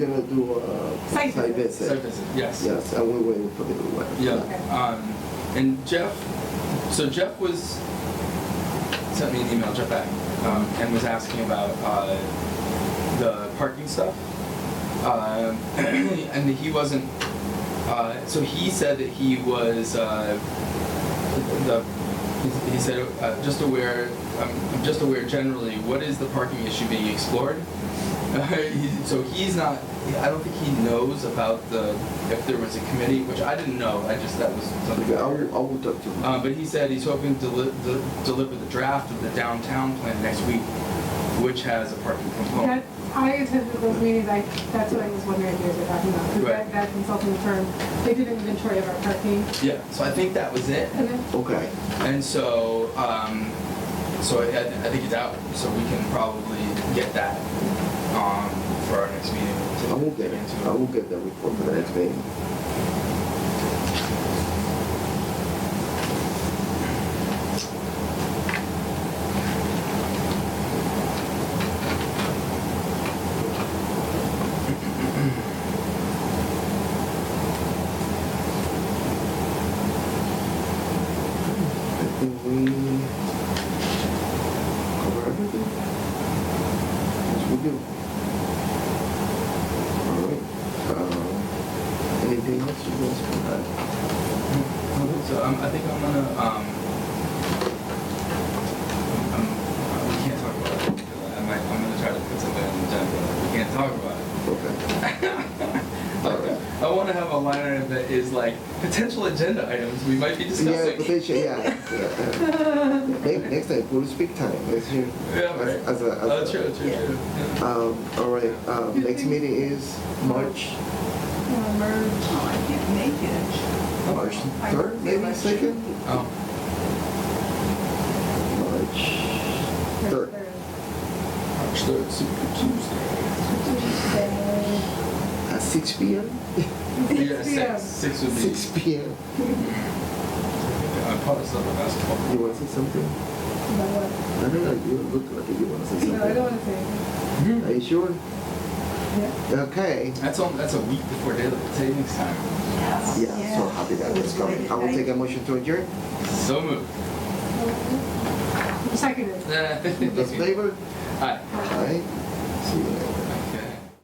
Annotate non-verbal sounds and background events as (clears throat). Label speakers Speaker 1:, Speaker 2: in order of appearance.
Speaker 1: gonna do a
Speaker 2: Site
Speaker 1: site
Speaker 2: visit.
Speaker 1: visit.
Speaker 3: Site visit, yes.
Speaker 1: Yes, and we're waiting for the report.
Speaker 3: Yeah,
Speaker 2: Okay.
Speaker 3: um, and Jeff, so Jeff was, sent me an email, Jeff back, um, and was asking about, uh, the parking stuff. Um, (clears throat) and he wasn't, uh, so he said that he was, uh, the, he- he said, uh, just aware, I'm, I'm just aware generally, what is the parking issue being explored? (laughs) He- so he's not. I don't think he knows about the if there was a committee, which I didn't know. I just that was something.
Speaker 1: Okay, I
Speaker 3: I heard.
Speaker 1: will, I will talk to him.
Speaker 3: Uh, but he said he's hoping to deli- de- deliver the draft of the downtown plan next week, which has a parking component.
Speaker 2: That, I attended those meetings, I, that's what I was wondering if you guys were talking about, because that,
Speaker 3: Right.
Speaker 2: that consulting firm, they did an inventory of our parking,
Speaker 3: Yeah. So I think that was it.
Speaker 2: and then,
Speaker 1: Okay,
Speaker 3: And so, um, so I, I I think it's out. So we can probably get that um, for our next meeting.
Speaker 1: I will get it, I will get that report for the next meeting. I think we cover everything. Yes, we do. All right. Um, anything else you guys can add?
Speaker 3: So um, I think I'm gonna, um, um, we can't talk about it, because I might, I'm gonna try to put something on the agenda, but we can't talk about it.
Speaker 1: Okay.
Speaker 3: Like, I wanna have a line item that is like, potential agenda items we might be
Speaker 1: Yeah,
Speaker 3: discussing.
Speaker 1: potential, yeah. yeah. next, next time, we'll speak time. Let's hear.
Speaker 3: Yeah, right.
Speaker 1: As a, as a.
Speaker 3: Uh, true, true, true. Yeah.
Speaker 1: Um, all right, um, next meeting is March,
Speaker 2: uh, merge.
Speaker 4: Oh, I can't make it.
Speaker 1: March
Speaker 4: I
Speaker 1: third, maybe
Speaker 4: realize-
Speaker 1: second?
Speaker 3: Oh,
Speaker 1: March third.
Speaker 3: March third, Super Tuesday.
Speaker 1: At six P M?
Speaker 3: Yeah, six, six would be.
Speaker 1: Six P M.
Speaker 3: I probably still have
Speaker 1: You
Speaker 3: basketball.
Speaker 1: wanna say something?
Speaker 2: About what?
Speaker 1: I don't know, you look like you wanna say something.
Speaker 2: No, I don't wanna say, anything.
Speaker 3: Mhm.
Speaker 1: Are you sure?
Speaker 2: yeah,
Speaker 1: Okay.
Speaker 3: That's on, that's a week before daylight savings time.
Speaker 4: Yes.
Speaker 1: Yeah, so happy that it's coming. I will take a motion to adjourn.
Speaker 3: So moved.
Speaker 2: seconded.
Speaker 3: Nah. (laughs)
Speaker 1: Those favor?
Speaker 3: Aye.
Speaker 1: Aye.